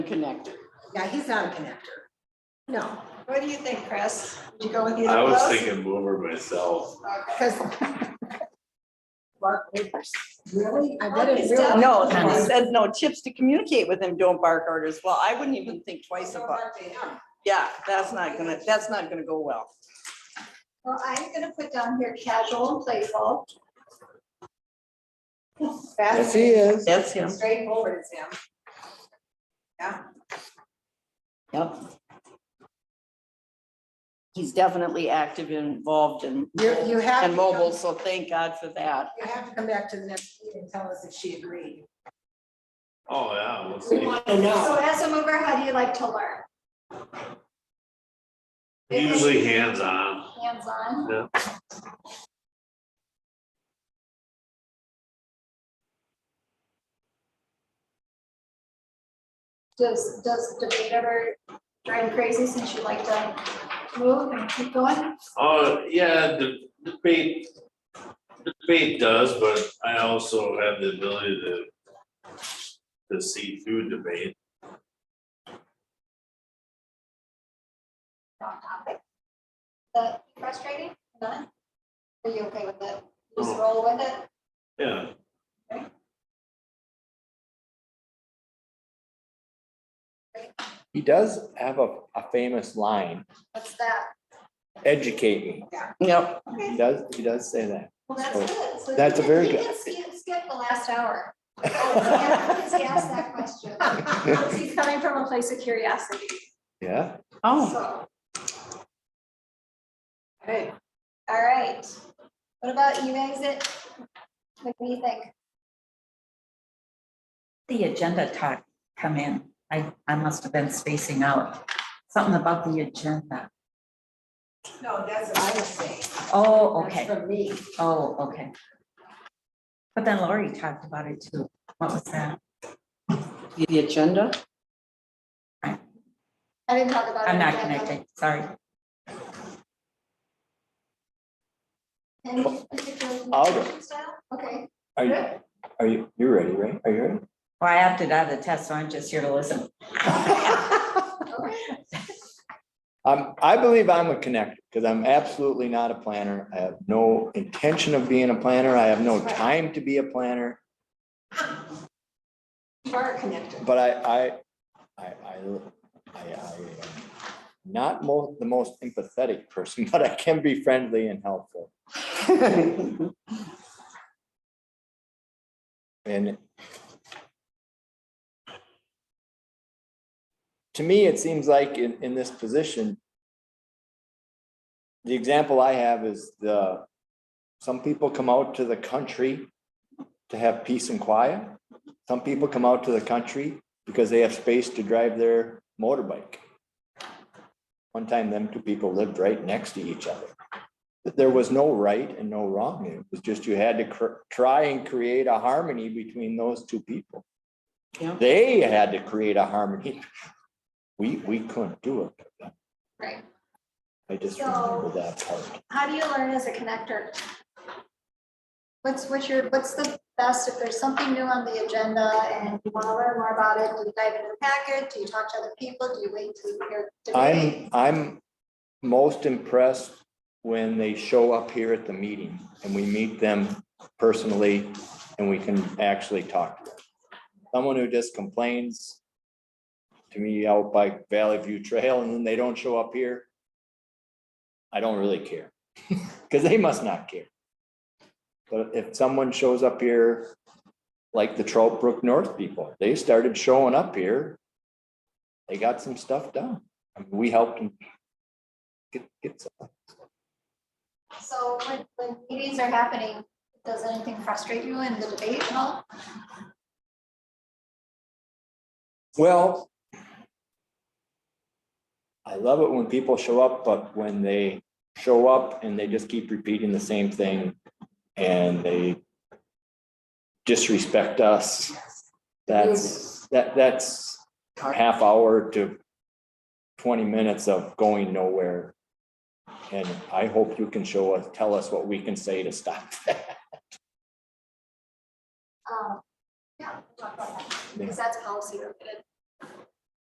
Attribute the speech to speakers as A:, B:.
A: connector.
B: Yeah, he's not a connector. No,
C: What do you think, Chris? Would you go with either
D: I
C: of
D: was
C: those?
D: thinking mover myself.
C: Okay.
B: because. Mark Neighbors, really? I
C: Mark
B: didn't
C: is
B: realize.
C: down.
E: No,
C: Kind
E: it
C: of.
E: says no tips to communicate with him, don't bark orders. Well, I wouldn't even think twice
C: Go
E: about,
C: back to him.
E: yeah, that's not gonna, that's not gonna go well.
C: Well, I'm gonna put down here casual and playful. Fast
A: he is.
E: That's him.
C: and straightforward is him.
E: Yep. He's definitely active and involved and,
B: You, you have.
E: and
B: to
E: mobile,
B: come-
E: so thank God for that.
B: You have to come back to the next meeting and tell us if she agreed.
D: Oh, yeah, we'll see.
C: So as a mover, how do you like to learn?
D: Usually hands-on.
C: Hands-on?
D: Yeah.
C: Does, does debate ever drive you crazy since you like to move and keep going?
D: Oh, yeah, the debate, debate does, but I also have the ability to to see through debate.
C: on topic? That frustrating? None? Are you okay with it?
F: Oh.
C: Just
D: No.
C: roll with it?
D: Yeah,
F: He does have a, a famous line,
C: What's that?
F: educate me.
E: Yep,
F: He does, he does say that.
C: Well, that's
F: Oh,
C: good. So
F: that's
C: you
F: a
C: can-
F: very
C: you
F: good-
C: can skip- Skip the last hour. Oh, Yeah, Because he asked that question. Because He's coming from a place of curiosity.
F: Yeah,
E: oh,
C: So,
B: Hey,
C: all right. What about you, exit? What do you think?
G: the agenda talk come in? I, I must have been spacing out. Something about the agenda.
B: no, that's what I was saying.
G: Oh,
B: That's
G: okay.
B: from me.
G: Oh, okay. But then Lori talked about it too. What was that?
E: the agenda?
C: I didn't talk about. it
G: I'm
C: yet,
G: not
C: but-
G: connected, sorry.
C: Any particular
F: I'll go.
C: communication style? Okay,
F: are you, are you, you're ready, right? Are you ready?
G: Well, I opted out of the test, so I'm just here to listen.
C: okay.
F: Um, I believe I'm a connector, because I'm absolutely not a planner. I have no intention of being a planner. I have no time to be a planner.
C: You are connected.
F: But I, I, I, I, I, I am not mo- the most empathetic person, but I can be friendly and helpful. And to me, it seems like in, in this position, the example I have is the, some people come out to the country to have peace and quiet. Some people come out to the country because they have space to drive their motorbike. One time, them two people lived right next to each other. But there was no right and no wrong. It was just you had to cr- try and create a harmony between those two people.
E: Yeah.
F: They had to create a harmony. We, we couldn't do it.
C: Right.
F: I just
C: So-
F: remember that part.
C: How do you learn as a connector? What's, what's your, what's the best, if there's something new on the agenda and you want to learn more about it, do you dive into the packet? Do you talk to other people? Do you wait till you hear debate?
F: I'm, I'm most impressed when they show up here at the meeting and we meet them personally and we can actually talk. to them. Someone who just complains to me out by Valley View Trail and then they don't show up here, I don't really care, because they must not care. But if someone shows up here, like the Trout Brook North people, they started showing up here, they got some stuff done. I mean, We helped them. Get, get, some-
C: So when, when meetings are happening, does anything frustrate you in the debate at all?
F: well. I love it when people show up, but when they show up and they just keep repeating the same thing and they disrespect us, that's, that, that's a half hour to twenty minutes of going nowhere. And I hope you can show us, tell us what we can say to stop that.
C: Um, Yeah, we'll talk about that, because that's policy related.